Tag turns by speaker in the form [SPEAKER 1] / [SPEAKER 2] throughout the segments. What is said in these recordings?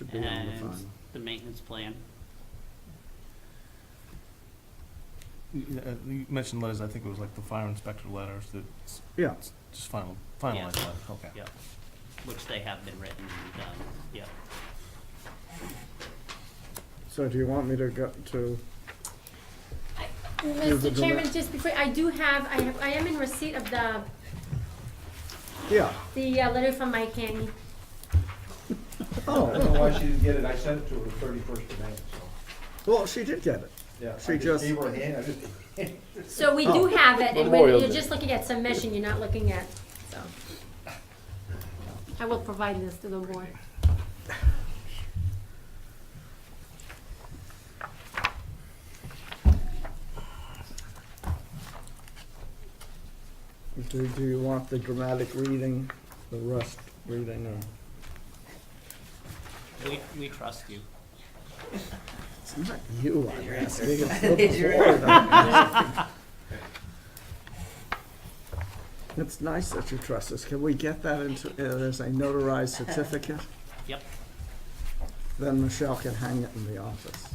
[SPEAKER 1] to be on the
[SPEAKER 2] and
[SPEAKER 1] fund.
[SPEAKER 2] the maintenance plan.
[SPEAKER 3] You uh, you mentioned letters, I think it was like the fire inspector letters that, s-
[SPEAKER 1] Yeah,
[SPEAKER 3] s- just final, finalized letters, okay.
[SPEAKER 2] Yep, which they have been written and done, yep.
[SPEAKER 1] so do you want me to go to, Here's the
[SPEAKER 4] Mr. Chairman, just before, I do have, I have, I am in receipt of the,
[SPEAKER 1] yeah,
[SPEAKER 4] the uh, letter from Mike Haney.
[SPEAKER 5] I don't
[SPEAKER 1] oh,
[SPEAKER 5] know why she didn't get it, I sent it to her the thirty-first of May, so,
[SPEAKER 1] well, she did get it.
[SPEAKER 5] yeah. I
[SPEAKER 1] She just-
[SPEAKER 5] Gave her a hand, I just,
[SPEAKER 4] So we do have it, and we're-
[SPEAKER 6] Memorial
[SPEAKER 4] you're
[SPEAKER 6] Day.
[SPEAKER 4] just looking at submission, you're not looking at, so. I will provide this to the board.
[SPEAKER 1] Do, do you want the dramatic reading, the rest reading, or?
[SPEAKER 2] We, we trust you.
[SPEAKER 1] It's not you I'm asking, it's the board I'm asking. It's nice that you trust us. Can we get that into, uh, as a notarized certificate?
[SPEAKER 2] Yep,
[SPEAKER 1] Then Michelle can hang it in the office.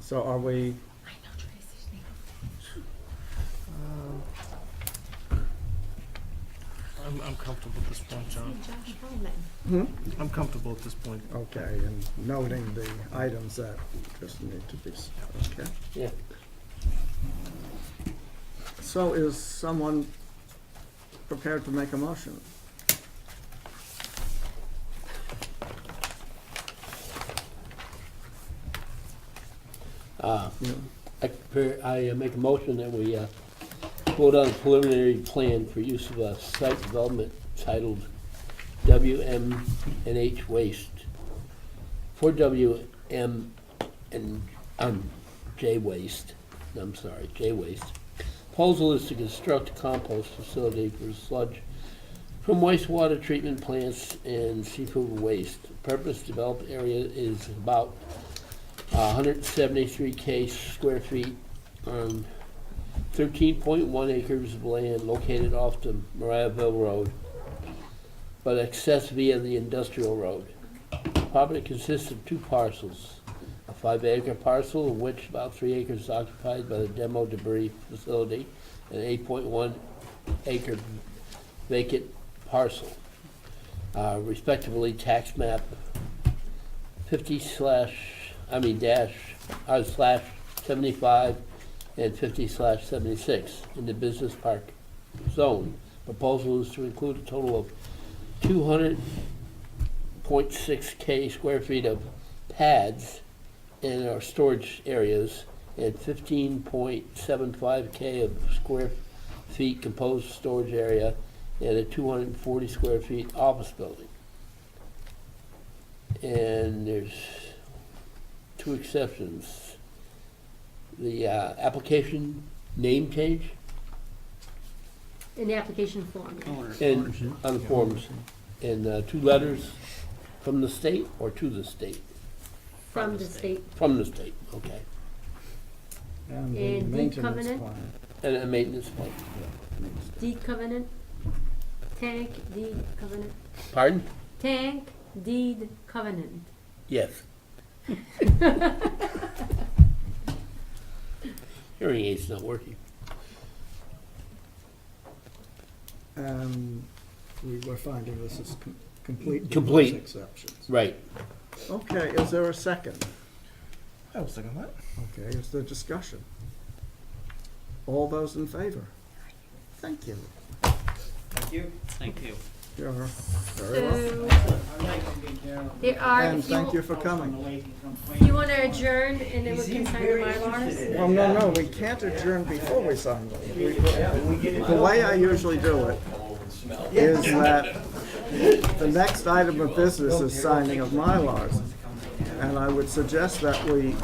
[SPEAKER 1] So are we,
[SPEAKER 3] I'm, I'm comfortable at this point, John.
[SPEAKER 1] hmm?
[SPEAKER 3] I'm comfortable at this point.
[SPEAKER 1] Okay, and noting the items that just need to be, s- okay?
[SPEAKER 6] Yeah.
[SPEAKER 1] So is someone prepared to make a motion?
[SPEAKER 6] Uh,
[SPEAKER 1] You-
[SPEAKER 6] I prepare- I uh, make a motion that we uh, vote on a preliminary plan for use of a site development titled WMNH Waste for WM and, um, J Waste, I'm sorry, J Waste. Proposal is to construct a compost facility for sludge from wastewater treatment plants and seafood waste. Purpose developed area is about Uh, 173 K square feet um, on 13.1 acres of land located off the Mariahville Road, but accessed via the industrial road. Property consists of two parcels, a five-acre parcel of which about three acres is occupied by the demo debris facility, and 8.1 acre vacant parcel, uh, respectively tax map 50 slash, I mean dash, uh, slash 75 and 50 slash 76 in the business park zone. Proposal is to include a total of 200.6 K square feet of pads in our storage areas and 15.75 K of square feet composed storage area and a 240 square feet office building. And there's two exceptions. The uh, application name change
[SPEAKER 4] In the application form, yeah.
[SPEAKER 2] owner.
[SPEAKER 6] and on the forms, and uh, two letters from the state or to the state?
[SPEAKER 4] from the state.
[SPEAKER 6] From the state, okay.
[SPEAKER 1] And the
[SPEAKER 4] And deed
[SPEAKER 1] maintenance
[SPEAKER 4] covenant?
[SPEAKER 1] plan.
[SPEAKER 6] And a maintenance plan.
[SPEAKER 4] Deed covenant, tank, deed covenant,
[SPEAKER 6] Pardon?
[SPEAKER 4] tank, deed covenant.
[SPEAKER 6] Yes. Hearing aid's not working.
[SPEAKER 1] And we were finding this is com- complete. with
[SPEAKER 6] Complete.
[SPEAKER 1] those Exceptions.
[SPEAKER 6] Right.
[SPEAKER 1] Okay, is there a second?
[SPEAKER 3] I was thinking that.
[SPEAKER 1] Okay, is there discussion? All those in favor? Thank you.
[SPEAKER 5] thank you.
[SPEAKER 2] Thank you.
[SPEAKER 1] You're very welcome.
[SPEAKER 4] So,
[SPEAKER 7] I'd like to be down.
[SPEAKER 4] there are,
[SPEAKER 1] And
[SPEAKER 4] if
[SPEAKER 1] thank
[SPEAKER 4] you,
[SPEAKER 1] you for coming.
[SPEAKER 4] you wanna adjourn and then we
[SPEAKER 7] He
[SPEAKER 4] can
[SPEAKER 7] seems
[SPEAKER 4] sign the
[SPEAKER 7] very
[SPEAKER 4] Mylars?
[SPEAKER 7] interested in
[SPEAKER 1] Well,
[SPEAKER 7] it.
[SPEAKER 1] no, no, we can't adjourn before we sign the
[SPEAKER 7] Yeah, when we get it
[SPEAKER 1] The way I usually do it is that the next item of business is signing of Mylars. And I would suggest that we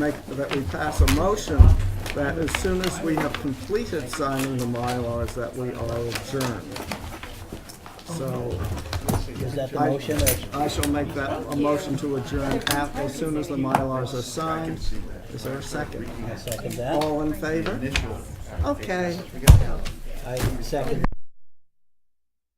[SPEAKER 1] make, that we pass a motion that as soon as we have completed signing the Mylars, that we are adjourned. So
[SPEAKER 8] Is that the
[SPEAKER 1] I-
[SPEAKER 8] motion or?
[SPEAKER 1] I shall make that a motion to adjourn at, as soon as the Mylars are signed. Is there a second?
[SPEAKER 8] I second that.
[SPEAKER 1] All in favor? Okay.
[SPEAKER 8] I second